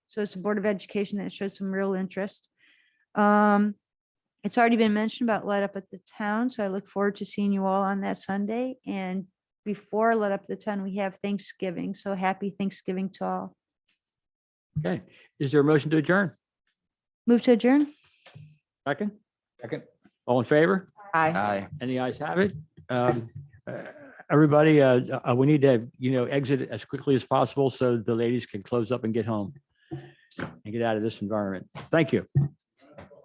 So it's the Board of Education that showed some real interest. Um, it's already been mentioned about Let Up at the Town, so I look forward to seeing you all on that Sunday. And before Let Up the Town, we have Thanksgiving, so happy Thanksgiving to all. Okay, is there a motion to adjourn? Move to adjourn? Second, Second. all in favor? Aye. Any eyes have it? Um, uh, Everybody, uh, uh, we need to, you know, exit as quickly as possible so the ladies can close up and get home and get out of this environment. Thank you.